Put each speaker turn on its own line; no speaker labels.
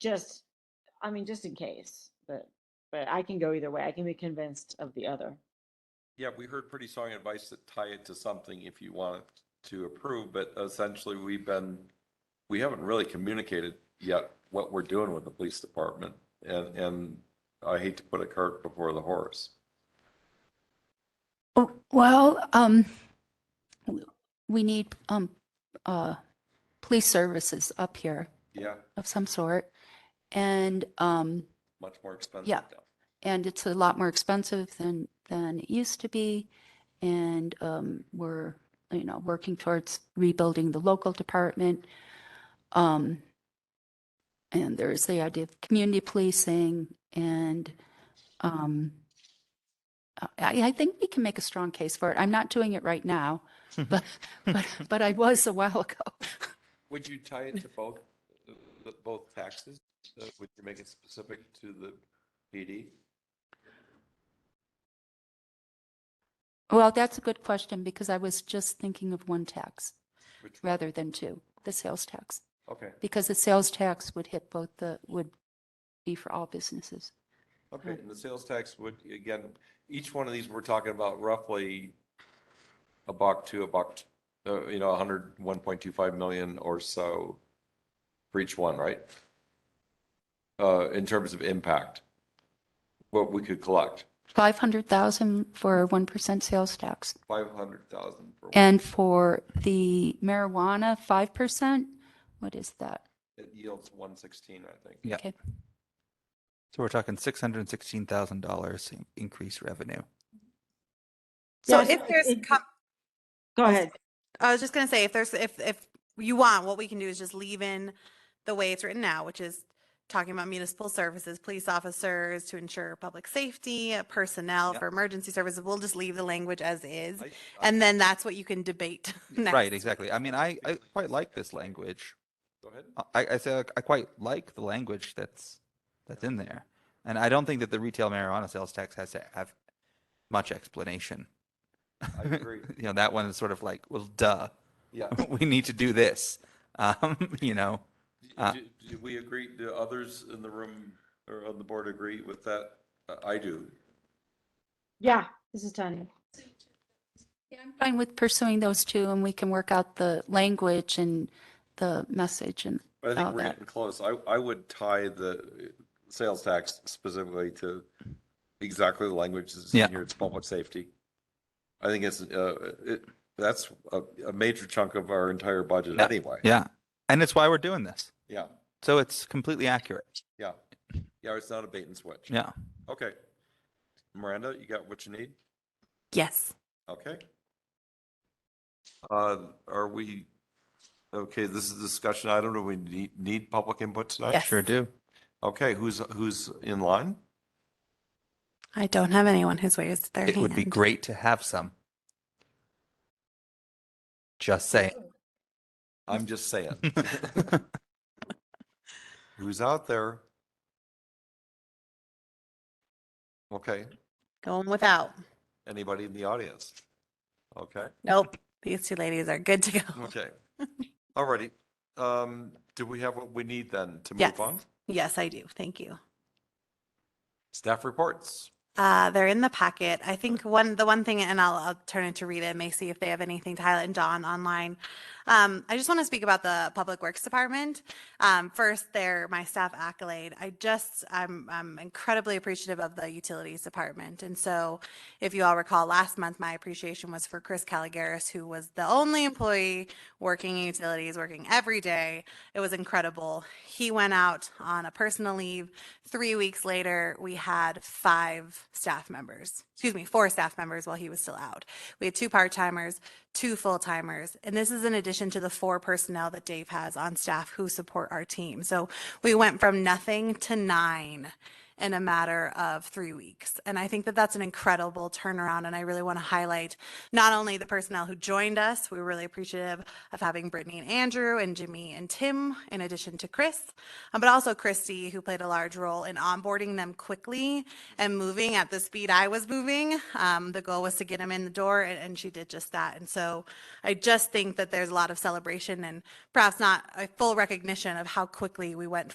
just, I mean, just in case, but, but I can go either way. I can be convinced of the other.
Yeah, we heard pretty strong advice to tie it to something if you want to approve, but essentially we've been, we haven't really communicated yet what we're doing with the police department. And, and I hate to put a cart before the horse.
Oh, Well, um, w- we need, um, uh, police services up here
Yeah,
of some sort. And, um,
much more expensive.
Yeah.
now.
and it's a lot more expensive than, than it used to be. And, um, we're, you know, working towards rebuilding the local department. Um, and there's the idea of community policing and, um, I, I think we can make a strong case for it. I'm not doing it right now, but, but, but I was a while ago.
Would you tie it to both, uh, both taxes? Uh, Would you make it specific to the PD?
Well, that's a good question because I was just thinking of one tax
Which-
rather than two, the sales tax.
Okay,
Because the sales tax would hit both the, would be for all businesses.
okay. And the sales tax would, again, each one of these, we're talking about roughly a buck to a buck, uh, you know, a hundred, one point two five million or so for each one, right? Uh, in terms of impact, what we could collect,
500,000 for 1% sales tax.
five hundred thousand for, one.
And for the marijuana, 5%, what is that?
it yields one sixteen, I think.
Yeah.
Okay,
So we're talking six hundred and sixteen thousand dollars increased revenue.
So
Yeah,
if
so
there's,
it-
com-
Go ahead.
I was just gonna say, if there's, if, if you want, what we can do is just leave in the way it's written now, which is talking about municipal services, police officers to ensure public safety, uh, personnel
Yep.
for emergency services. We'll just leave the language as is.
I- I-
And then that's what you can debate next.
Right, exactly. I mean, I, I quite like this language.
Go ahead.
I, I say like, I quite like the language that's that's in there, and I don't think that the retail marijuana sales tax has to have much explanation.
I agree.
you know, that one is sort of like, well, duh,
Yeah.
we need to do this. Um, you know, Uh,
Do do we agree, do others in the room or on the board agree with that? Uh, I do.
Yeah, this is Tanya.
I'm fine with pursuing those two and we can work out the language and the message and
But I think
Oh,
we're
that-
getting close. I, I would tie the uh, sales tax specifically to exactly the language that's
Yeah.
in here, it's public safety. I think it's, uh, it, that's a, a major chunk of our entire budget
Yeah.
anyway.
yeah, and it's why we're doing this.
Yeah,
So it's completely accurate.
yeah. Yeah, it's not a bait and switch.
Yeah.
Okay. Miranda, you got what you need?
Yes.
Okay. Uh, Are we, okay, this is discussion. I don't know, we need, need public input tonight?
Yes.
Sure do.
Okay, who's, who's in line?
I don't have anyone who's raised their
It would be
hand.
great to have some. Just saying.
I'm just saying. Who's out there? Okay,
Going without.
anybody in the audience? Okay,
Nope. These two ladies are good to go.
okay. All righty. Um, do we have what we need then to
Yes.
move on?
Yes, I do. Thank you.
Staff reports.
Uh, they're in the packet. I think one, the one thing, and I'll, I'll turn it to Rita and may see if they have anything to highlight and Dawn online. Um, I just want to speak about the Public Works Department. Um, first, they're my staff accolade. I just, I'm, I'm incredibly appreciative of the Utilities Department. And so if you all recall, last month, my appreciation was for Chris Caligaris, who was the only employee working in utilities, working every day. It was incredible. He went out on a personal leave Three weeks later, we had five staff members, excuse me, four staff members while he was still out. We had two part timers, two full timers, and this is in addition to the four personnel that Dave has on staff who support our team. So we went from nothing to nine in a matter of three weeks. And I think that that's an incredible turnaround. And I really want to highlight not only the personnel who joined us, we were really appreciative of having Brittany and Andrew and Jimmy and Tim, in addition to Chris, um, but also Christy, who played a large role in onboarding them quickly and moving at the speed I was moving. Um, the goal was to get them in the door, and, and she did just that. And so I just think that there's a lot of celebration and perhaps not a full recognition of how quickly we went